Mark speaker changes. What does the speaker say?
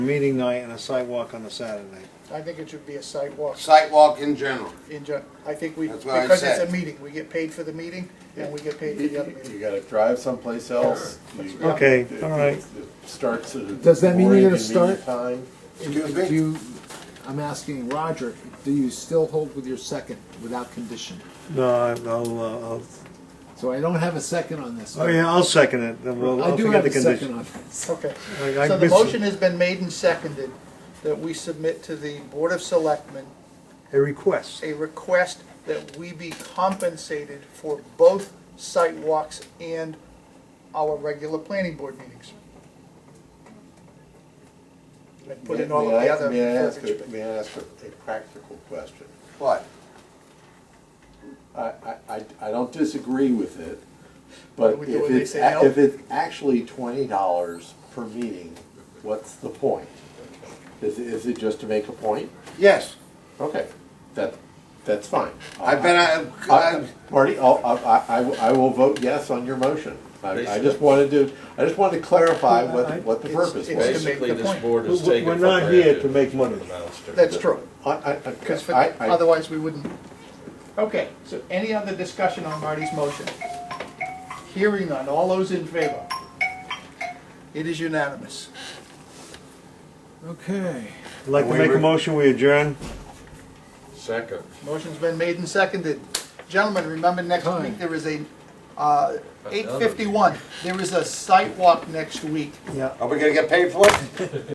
Speaker 1: Meeting night and a sidewalk on a Saturday.
Speaker 2: I think it should be a sidewalk
Speaker 3: Sidewalk in general.
Speaker 2: in gen, I think we,
Speaker 3: That's what I
Speaker 2: because it's a
Speaker 3: said.
Speaker 2: meeting, we get paid for the meeting and we get paid for the other
Speaker 4: You
Speaker 2: meeting.
Speaker 4: gotta drive someplace else. You-
Speaker 1: Okay,
Speaker 4: it-
Speaker 1: all right.
Speaker 4: it Starts at a.
Speaker 5: Does that mean
Speaker 4: more
Speaker 5: you're gonna
Speaker 4: inconvenient
Speaker 5: start?
Speaker 4: Time.
Speaker 3: Excuse
Speaker 5: Do
Speaker 3: me?
Speaker 5: you, I'm asking Roger, do you still hold with your second without condition?
Speaker 1: No, I- I'll, uh, I'll,
Speaker 5: So I don't have a second on this.
Speaker 1: oh yeah, I'll second it, then we'll,
Speaker 5: I
Speaker 1: I'll
Speaker 5: do
Speaker 1: forget
Speaker 5: have
Speaker 1: the
Speaker 5: a second
Speaker 1: condition.
Speaker 5: on this.
Speaker 2: Okay,
Speaker 1: I- I
Speaker 2: so the
Speaker 1: missed it.
Speaker 2: motion has been made and seconded that we submit to the Board of Selectmen
Speaker 1: A request.
Speaker 2: a request that we be compensated for both sidewalks and our regular planning board meetings. And put in all of
Speaker 4: May I-
Speaker 2: the other
Speaker 4: May I ask,
Speaker 2: verbiage.
Speaker 4: a- may I ask a a practical question?
Speaker 3: What?
Speaker 4: I, I, I- I don't disagree with
Speaker 2: do
Speaker 4: it, but
Speaker 2: we do
Speaker 4: if
Speaker 2: when they
Speaker 4: it's,
Speaker 2: say
Speaker 4: a-
Speaker 2: no?
Speaker 4: if it's actually twenty dollars per meeting, what's the point? Is, it- is it just to make a point?
Speaker 3: Yes,
Speaker 4: Okay, that, that's fine.
Speaker 3: I've been, I've,
Speaker 4: I-
Speaker 3: I've-
Speaker 4: Marty, I'll- I, I, I will- I will vote yes on your motion. I, I just wanted to, I just wanted to clarify what, the- what the
Speaker 2: It's-
Speaker 4: purpose
Speaker 2: it's-
Speaker 4: was.
Speaker 2: make
Speaker 6: Basically,
Speaker 2: the
Speaker 6: this
Speaker 2: point.
Speaker 6: board is
Speaker 1: We're-
Speaker 6: taking.
Speaker 1: we're not
Speaker 6: for granted
Speaker 1: here to make money.
Speaker 6: the monster.
Speaker 2: That's true,
Speaker 4: I, I,
Speaker 2: because
Speaker 4: I- I-
Speaker 2: otherwise we wouldn't. Okay, so any other discussion on Marty's motion? Hearing none, all those in favor? It is unanimous.
Speaker 5: Okay.
Speaker 1: I'd Like to make a motion, we adjourn?
Speaker 6: Second.
Speaker 2: Motion's been made and seconded. Gentlemen, remember next
Speaker 5: Time.
Speaker 2: week, there is a, uh, eight fifty-one, there is a site walk next week.
Speaker 1: Yeah.
Speaker 3: are we gonna get paid for it?